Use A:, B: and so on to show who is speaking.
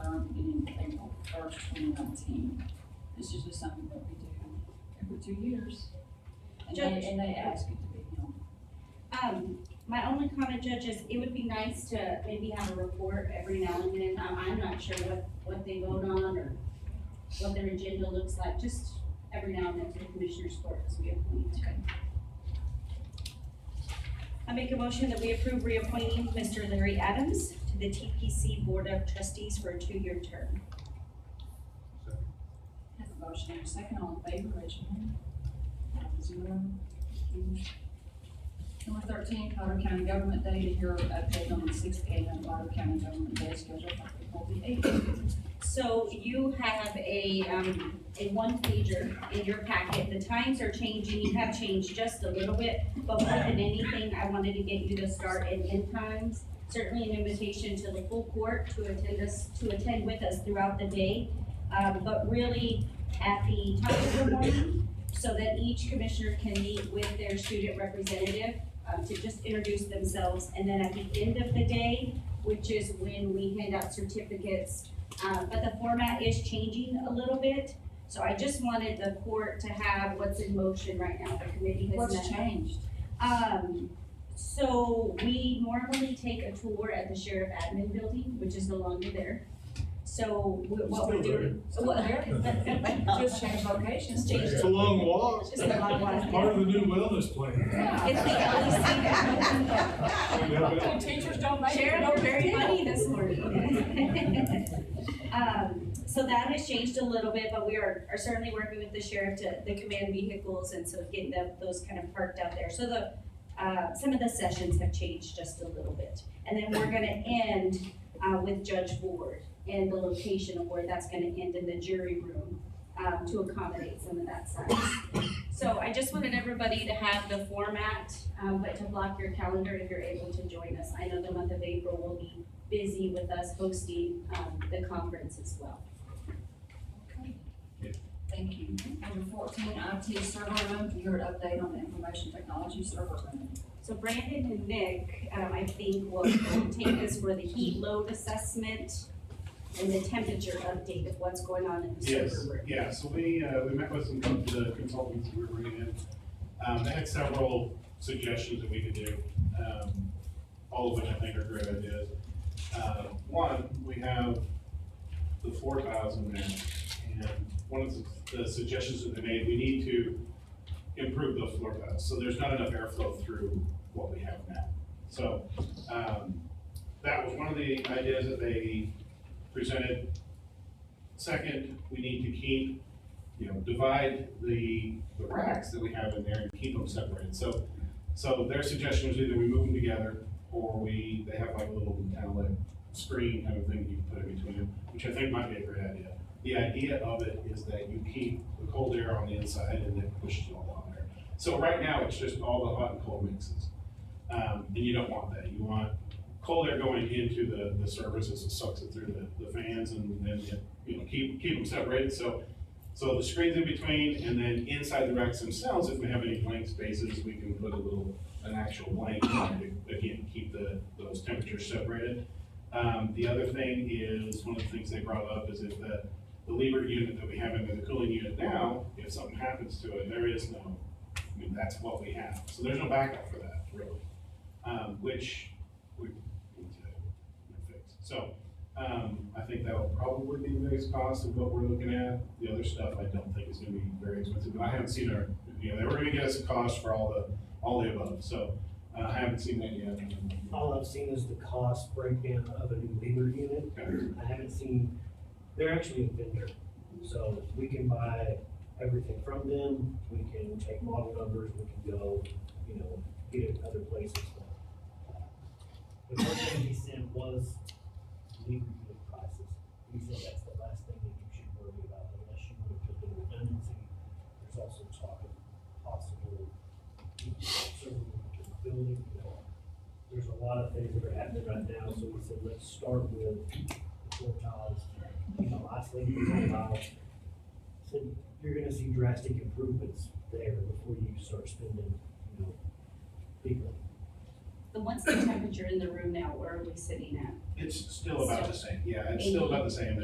A: of twenty nineteen. This is just something that we do every two years. And
B: Judge.
A: they, and they ask it to be, you
B: Um, my only comment, Judge, is it would be nice to maybe have a report every now and then, um, I'm not sure what, what they vote on or what their agenda looks like, just every now and then to the Commissioners Court as we appoint. I make a motion that we approve reappointing Mr. Larry Adams to the TPC Board of Trustees for a two-year term.
A: have a motion and a second, all in favor, raise your hand. Five Zero. Number thirteen, Colorado County Government Day, to hear update on the sixth annual Colorado County Government Day schedule for April the eighth.
B: So you have a, um, a one pager in your packet, the times are changing, you have changed just a little bit, but more than anything, I wanted to get you to start and end times. Certainly an invitation to the full court to attend us, to attend with us throughout the day, um, but really at the top of the morning, so that each commissioner can meet with their student representative, um, to just introduce themselves, and then at the end of the day, which is when we hand out certificates uh, but the format is changing a little bit, so I just wanted the court to have what's in motion right now, the committee has met.
A: What's changed?
B: Um, so we normally take a tour at the sheriff admin building, which is no longer there. So we- what we're doing. Well,
A: Just change locations.
C: It's a long walk.
B: It's a long walk.
C: Part of the new wellness plan.
B: It's the LEC.
C: Yeah,
D: Teachers don't make it,
B: Sharon,
D: no
B: you're very
D: kidding.
B: funny this morning. Um, so that has changed a little bit, but we are, are certainly working with the sheriff to, the command vehicles and so getting them, those kind of parked out there. So the, uh, some of the sessions have changed just a little bit. And then we're gonna end, uh, with Judge Ward and the location of where that's gonna end in the jury room, um, to accommodate some of that size. So I just wanted everybody to have the format, um, but to block your calendar if you're able to join us. I know the month of April will be busy with us hosting, um, the conference as well.
A: Okay. Thank you. Number fourteen, IT server room, you heard update on the information technology server room.
B: So Brandon and Nick, um, I think will take us for the heat load assessment and the temperature update of what's going on in the
E: Yes,
B: server room.
E: yeah, so we, uh, we met with some of the consultants we were bringing in. Um, they had several suggestions that we could do, um, all of which I think are great ideas. Uh, one, we have the four thousand there, and one of the- the suggestions that they made, we need to improve the floor tiles, so there's not enough airflow through what we have now. So, um, that was one of the ideas that they presented. Second, we need to keep, you know, divide the, the racks that we have in there and keep them separated. So, so their suggestion was either we move them together or we, they have like a little kind of like screen kind of thing you can put in between them, which I think might be a great idea. The idea of it is that you keep the cold air on the inside and it pushes it all down there. So right now, it's just all the hot and cold mixes. Um, and you don't want that. You want cold air going into the, the services, it sucks it through the, the fans and then it you know, keep, keep them separated, so, so the screens in between, and then inside the racks themselves, if we have any blank spaces, we can put a little, an actual blank, in there to, again, keep the, those temperatures separated. Um, the other thing is, one of the things they brought up is if the, the Liebert unit that we have in there, the cooling unit now, if something happens to it, there is no, I mean, that's what we have, so there's no backup for that, really. Um, which we need to fix, so, um, I think that'll probably be the biggest cost of what we're looking at. The other stuff I don't think is gonna be very expensive, but I haven't seen our, you know, they were gonna get us a cost for all the, all the above, so, uh, I haven't seen that yet.
F: All I've seen is the cost breakdown of a new labor unit.
E: Okay.
F: I haven't seen, they're actually a vendor. So we can buy everything from them, we can take model numbers, we can go, you know, get it other places. The first thing he sent was labor unit prices. He said that's the last thing that you should worry about unless you want to put in redundancy. There's also talk of possible, you know, server room in the building, you know, there's a lot of things that are happening right now, so we said, let's start with the floor tiles, you know, isolating the floor tiles. So you're gonna see drastic improvements there before you start spending, you know, big money.
B: But what's the temperature in the room now? Where are we sitting at?
E: It's still about the same, yeah, it's still about the same,